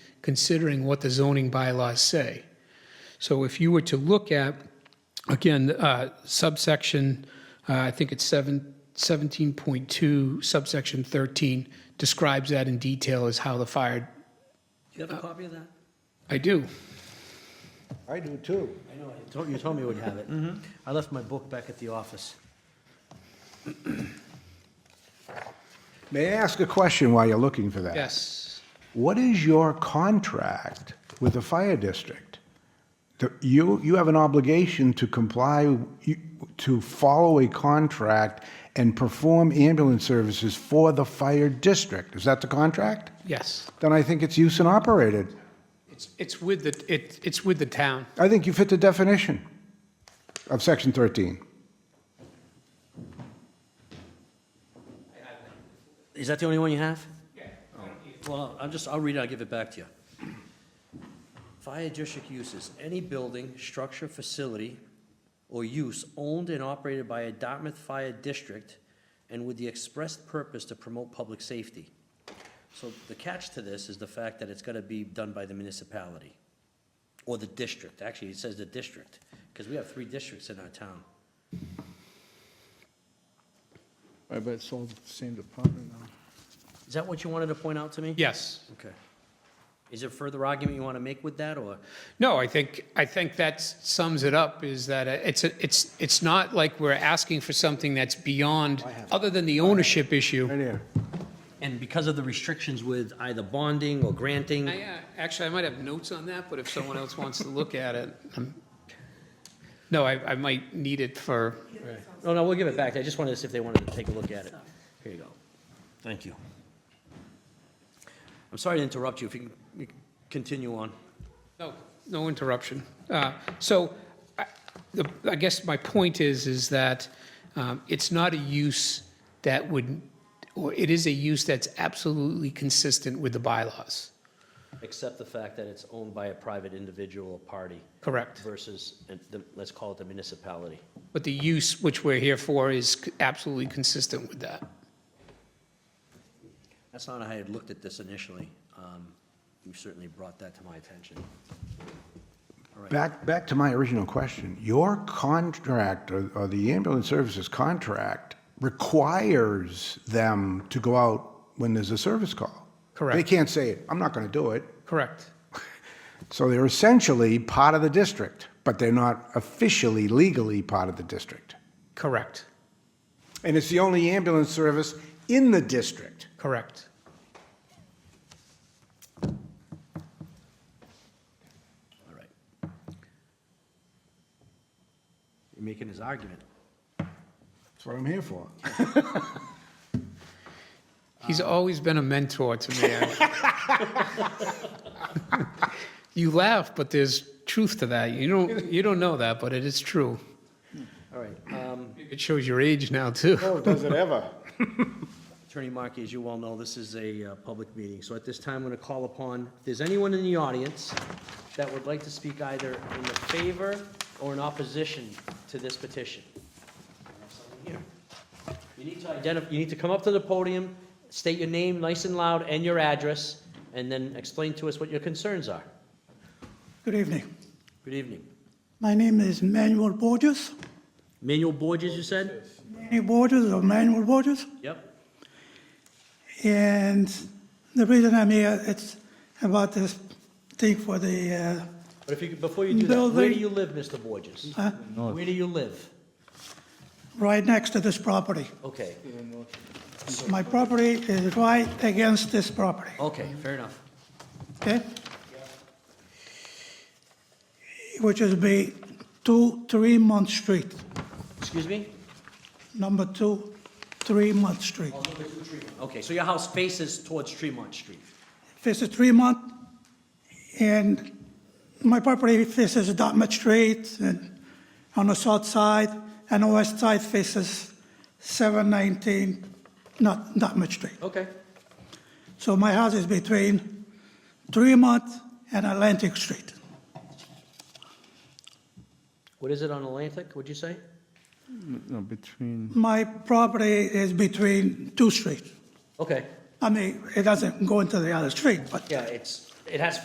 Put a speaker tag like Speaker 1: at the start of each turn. Speaker 1: considering what the zoning bylaws say. So if you were to look at, again, uh, subsection, uh, I think it's seven- 17.2 subsection 13 describes that in detail as how the fire,
Speaker 2: Do you have a copy of that?
Speaker 1: I do.
Speaker 3: I do too.
Speaker 2: I know, you told, you told me you would have it. I left my book back at the office.
Speaker 3: May I ask a question while you're looking for that?
Speaker 1: Yes.
Speaker 3: What is your contract with the fire district? The- You, you have an obligation to comply, you- to follow a contract and perform ambulance services for the fire district. Is that the contract?
Speaker 1: Yes.
Speaker 3: Then I think it's use and operated.
Speaker 1: It's, it's with the, it, it's with the town.
Speaker 3: I think you fit the definition of section 13.
Speaker 2: Is that the only one you have? Yeah. Well, I'm just, I'll read it, I'll give it back to you. Fire district uses, any building, structure, facility, or use owned and operated by a Dartmouth Fire District and with the express purpose to promote public safety. So the catch to this is the fact that it's gotta be done by the municipality or the district. Actually, it says the district, because we have three districts in our town.
Speaker 4: I bet it's all the same department now.
Speaker 2: Is that what you wanted to point out to me?
Speaker 1: Yes.
Speaker 2: Okay. Is there further argument you want to make with that, or?
Speaker 1: No, I think, I think that sums it up, is that uh, it's, a- it's, it's not like we're asking for something that's beyond, other than the ownership issue.
Speaker 3: Right here.
Speaker 2: And because of the restrictions with either bonding or granting,
Speaker 1: I, uh, Actually, I might have notes on that, but if someone else wants to look at it, um, no, I, I might need it for,
Speaker 2: no, no, we'll give it back. I just wanted to see if they wanted to take a look at it. Here you go. Thank you. I'm sorry to interrupt you, if you can you can continue on.
Speaker 1: No, no interruption. Uh, So I- the- I guess my point is, is that um, it's not a use that would, or it is a use that's absolutely consistent with the bylaws.
Speaker 2: Except the fact that it's owned by a private individual or party
Speaker 1: Correct.
Speaker 2: versus, and the- let's call it the municipality.
Speaker 1: But the use which we're here for is c- absolutely consistent with that.
Speaker 2: That's not how I had looked at this initially. Um, You certainly brought that to my attention.
Speaker 3: Back, back to my original question. Your contract, or, or the ambulance services contract, requires them to go out when there's a service call.
Speaker 1: Correct.
Speaker 3: They can't say, I'm not going to do it.
Speaker 1: Correct.
Speaker 3: So they're essentially part of the district, but they're not officially legally part of the district.
Speaker 1: Correct.
Speaker 3: And it's the only ambulance service in the district.
Speaker 1: Correct.
Speaker 2: All right. You're making his argument.
Speaker 3: That's what I'm here for.
Speaker 1: He's always been a mentor to me. You laugh, but there's truth to that. You don't, you don't know that, but it is true.
Speaker 2: All right, um,
Speaker 1: It shows your age now, too.
Speaker 3: Oh, does it ever?
Speaker 2: Attorney Markey, as you well know, this is a uh, public meeting, so at this time, I'm going to call upon, if there's anyone in the audience that would like to speak either in the favor or in opposition to this petition. Here. You need to identify, you need to come up to the podium, state your name nice and loud and your address, and then explain to us what your concerns are.
Speaker 5: Good evening.
Speaker 2: Good evening.
Speaker 5: My name is Manuel Borges.
Speaker 2: Manuel Borges, you said?
Speaker 5: Manny Borges or Manuel Borges.
Speaker 2: Yep.
Speaker 5: And the reason I'm here, it's about this thing for the,
Speaker 2: But if you, could- before you do that, where do
Speaker 5: Building.
Speaker 2: you live, Mr. Borges?
Speaker 5: uh, uh,
Speaker 2: Where do you live?
Speaker 5: right next to this property.
Speaker 2: Okay,
Speaker 5: My property is right against this property,
Speaker 2: okay, fair enough.
Speaker 5: okay? Which is be two, three Month Street,
Speaker 2: Excuse me?
Speaker 5: number two, three Month Street.
Speaker 2: Okay, so your house faces towards Tremont Street.
Speaker 5: faces Tremont, and my property faces Dartmouth Street, and on the south side, and the west side faces 719, not Dartmouth Street.
Speaker 2: Okay.
Speaker 5: So my house is between Tremont and Atlantic Street.
Speaker 2: What is it on Atlantic, would you say?
Speaker 4: No, between,
Speaker 5: My property is between two streets.
Speaker 2: Okay,
Speaker 5: I mean, it doesn't go into the other street, but
Speaker 2: yeah, it's, it has